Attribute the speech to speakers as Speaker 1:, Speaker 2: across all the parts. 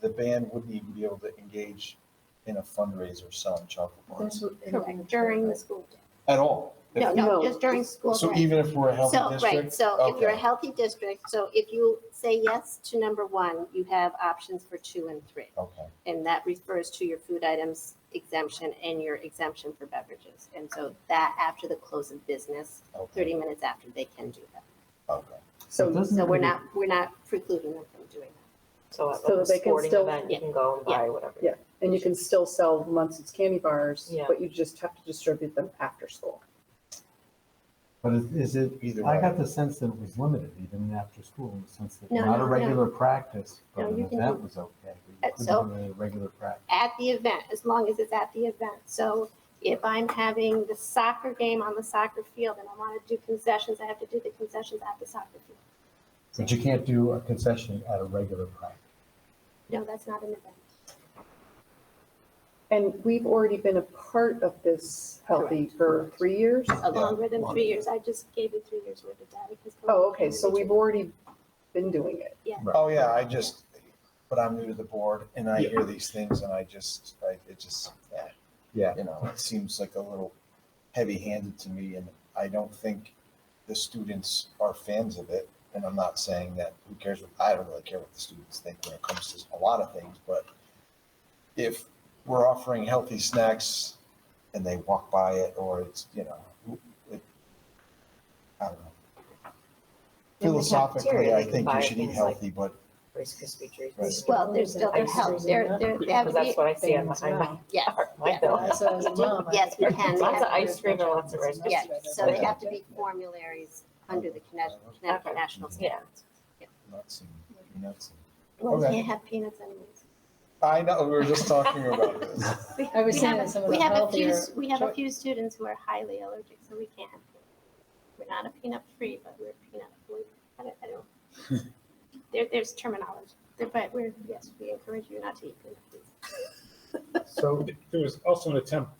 Speaker 1: the band wouldn't even be able to engage in a fundraiser selling chocolate bars
Speaker 2: That's what-
Speaker 3: Correct, during the school day.
Speaker 1: at all. If-
Speaker 3: No,
Speaker 2: No.
Speaker 3: no, just during school
Speaker 1: So
Speaker 3: day.
Speaker 1: even if we're a healthy
Speaker 3: So, right,
Speaker 1: district,
Speaker 3: so if you're a
Speaker 1: Okay.
Speaker 3: healthy district, so if you say yes to number one, you have options for two and three.
Speaker 1: okay,
Speaker 3: And that refers to your food items exemption and your exemption for beverages. And so that after the close of business,
Speaker 1: okay,
Speaker 3: thirty minutes after, they can do that.
Speaker 1: okay.
Speaker 4: It
Speaker 3: So,
Speaker 4: doesn't
Speaker 3: so we're
Speaker 4: really-
Speaker 3: not, we're not precluding them from doing that.
Speaker 5: So at
Speaker 4: So
Speaker 5: like a
Speaker 4: they can
Speaker 5: sporting
Speaker 4: still-
Speaker 5: event, you can go and buy whatever.
Speaker 4: Yeah. And you can still sell Munson's candy bars,
Speaker 5: Yeah.
Speaker 4: but you just have to distribute them after school.
Speaker 6: But is- is it,
Speaker 1: Either
Speaker 6: I got
Speaker 1: way,
Speaker 6: the sense that it was limited even after school, in the sense that
Speaker 3: No,
Speaker 6: not
Speaker 3: no,
Speaker 6: a
Speaker 3: no.
Speaker 6: regular practice,
Speaker 3: No,
Speaker 6: but an
Speaker 3: you can
Speaker 6: event
Speaker 3: do-
Speaker 6: was okay.
Speaker 3: Uh,
Speaker 6: but you
Speaker 3: so-
Speaker 6: couldn't do it at a Regular practice.
Speaker 3: At the event, as long as it's at the event. So if I'm having the soccer game on the soccer field and I want to do concessions, I have to do the concessions at the soccer field.
Speaker 6: But you can't do a concession at a regular practice.
Speaker 3: No, that's not an event.
Speaker 4: And we've already been a part of this healthy for three years?
Speaker 3: Uh,
Speaker 1: Yeah,
Speaker 3: longer than
Speaker 1: longer.
Speaker 3: three years. I just gave you three years worth of data. because-
Speaker 4: Oh, okay, so we've already been doing it.
Speaker 1: oh yeah, I just, but I'm new to the board and I hear these things and I just, I, it just, eh,
Speaker 6: Yeah.
Speaker 1: you know, it seems like a little heavy-handed to me and I don't think the students are fans of it. And I'm not saying that, who cares, what- I don't really care what the students think when it comes to a lot of things, but if we're offering healthy snacks and they walk by it or it's, you know, it, I don't know.
Speaker 5: In the
Speaker 1: Philosophically,
Speaker 5: cafeteria,
Speaker 1: I
Speaker 5: they
Speaker 1: think
Speaker 5: can
Speaker 1: you
Speaker 5: buy
Speaker 1: should eat
Speaker 5: things like-
Speaker 1: healthy, but
Speaker 5: Rice Krispie
Speaker 1: Right.
Speaker 5: treats.
Speaker 3: Well, there's still their
Speaker 5: Ice
Speaker 3: health,
Speaker 5: cream,
Speaker 3: they're, they're. they have
Speaker 5: Because that's
Speaker 3: to
Speaker 5: what I see on my, on my,
Speaker 3: be- Yes,
Speaker 5: my
Speaker 3: yes.
Speaker 5: bill.
Speaker 2: So as a mom, I
Speaker 3: Yes, we
Speaker 2: think-
Speaker 3: can. We
Speaker 5: Lots of
Speaker 3: have to-
Speaker 5: ice cream and lots of rice.
Speaker 3: yes, so they have to be
Speaker 2: Yeah.
Speaker 3: formularies under the Connecticut Connecticut National
Speaker 5: Yeah.
Speaker 3: Standards.
Speaker 1: not seeing, not seeing.
Speaker 3: Well, we
Speaker 1: Okay.
Speaker 3: can't have peanuts anyways.
Speaker 1: I know, we were just talking about this.
Speaker 3: We-
Speaker 2: I was
Speaker 3: we
Speaker 2: saying
Speaker 3: have-
Speaker 2: that some of
Speaker 3: We
Speaker 2: the
Speaker 3: have a few,
Speaker 2: healthier
Speaker 3: we have a
Speaker 2: choi-
Speaker 3: few students who are highly allergic, so we can't have peanuts. We're not a peanut free, but we're peanut avoidant. I don't, I don't. There, there's terminology, There- but we're, yes, we encourage you not to eat peanut please.
Speaker 7: So there was also an attempt,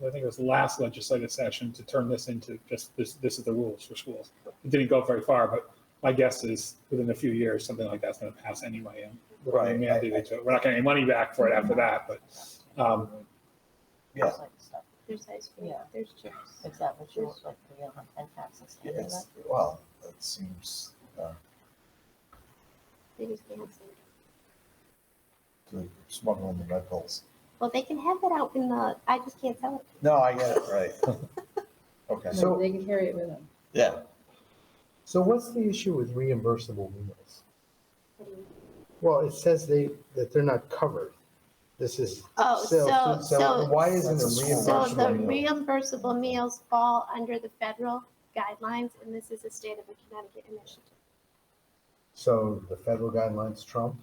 Speaker 7: I think it was last legislative session, to turn this into just this, this is the rules for schools. It didn't go very far, but my guess is within a few years, something like that's gonna pass anyway. and we're gonna
Speaker 1: Right.
Speaker 7: mandate it to- We're not getting any money back for it after that, but, um,
Speaker 1: Yeah.
Speaker 3: There's ice cream,
Speaker 8: Yeah.
Speaker 3: there's chips.
Speaker 8: Is that what you want, like, the real and taxes?
Speaker 1: Yeah, It's, well, that seems, uh,
Speaker 3: They just can't have soda.
Speaker 1: to smuggle in the Red Bulls.
Speaker 3: Well, they can have that out in the, I just can't sell it.
Speaker 1: No, I get it, right. Okay,
Speaker 2: So they can carry it with them.
Speaker 1: yeah,
Speaker 9: So what's the issue with reimbursable meals?
Speaker 3: What do you mean?
Speaker 9: Well, it says they, that they're not covered. This is.
Speaker 3: Oh, so,
Speaker 9: sales,
Speaker 3: so,
Speaker 9: Why isn't
Speaker 1: That's
Speaker 9: it
Speaker 3: so
Speaker 1: reimbursable
Speaker 3: the
Speaker 9: reimbursable? meal?
Speaker 3: reimbursable meals fall under the federal guidelines, and this is a state of a Connecticut initiative.
Speaker 9: So the federal guidelines trump,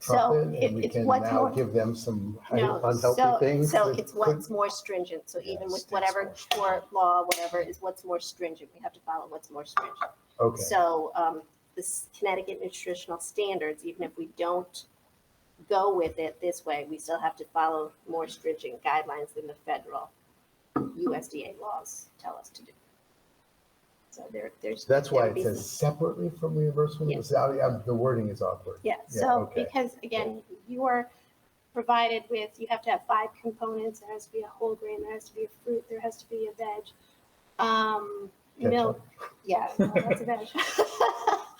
Speaker 9: trump
Speaker 3: So
Speaker 9: it,
Speaker 3: it-
Speaker 9: and we
Speaker 3: it's
Speaker 9: can
Speaker 3: what's
Speaker 9: now
Speaker 3: more,
Speaker 9: give them some hi-
Speaker 3: no,
Speaker 9: unhealthy
Speaker 3: so,
Speaker 9: things.
Speaker 3: so
Speaker 9: that
Speaker 3: it's
Speaker 9: could-
Speaker 3: what's more stringent, so
Speaker 1: Yeah,
Speaker 3: even with
Speaker 1: states
Speaker 3: whatever
Speaker 1: more
Speaker 3: court law, whatever is what's more stringent, we have to follow what's more stringent.
Speaker 9: Okay,
Speaker 3: So um, this Connecticut nutritional standards, even if we don't go with it this way, we still have to follow more stringent guidelines than the federal USDA laws tell us to do. So there, there's.
Speaker 9: so that's why
Speaker 3: there'd
Speaker 9: it
Speaker 3: be
Speaker 9: says
Speaker 3: some-
Speaker 9: separately from reimbursement.
Speaker 3: Yeah.
Speaker 9: Is that- um, The wording is awkward.
Speaker 3: Yeah,
Speaker 9: yeah,
Speaker 3: so
Speaker 9: okay.
Speaker 3: because again, you are provided with, you have to have five components. There has to be a whole grain, there has to be a fruit, there has to be a veg. Um,
Speaker 9: Ketchup.
Speaker 3: milk, yeah, no, Oh, that's a veg.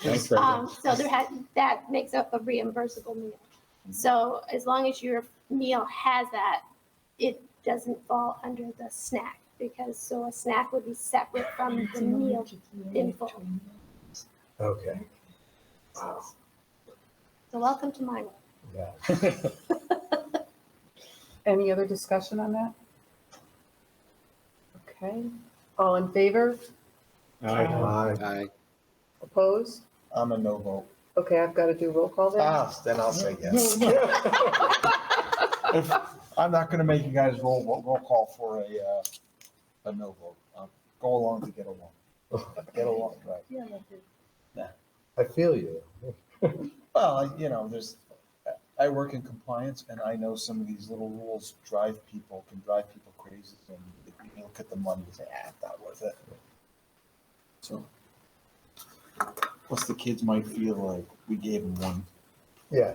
Speaker 7: thanks for everything.
Speaker 3: Um, so there had, that makes up a reimbursable meal. So as long as your meal has that, it doesn't fall under the snack because, so a snack would be separate from the meal in full.
Speaker 9: Okay,
Speaker 3: So welcome to my world.
Speaker 9: yeah.
Speaker 4: Any other discussion on that? Okay, all in favor?
Speaker 7: I-
Speaker 9: Uh,
Speaker 4: Opposed?
Speaker 1: I'm a no vote.
Speaker 4: Okay, I've got to do roll call there.
Speaker 1: Ah, then I'll say yes. If- I'm not gonna make you guys roll, roll roll call for a, uh, a no vote. I'll Go along to get along. Get along, right.
Speaker 9: I feel you.
Speaker 1: Well, I- you know, there's, I- I work in compliance and I know some of these little rules drive people, can drive people crazy. And if you look at the money, you say, ah, it's not worth it. So. Plus the kids might feel like we gave them one.
Speaker 9: Yeah,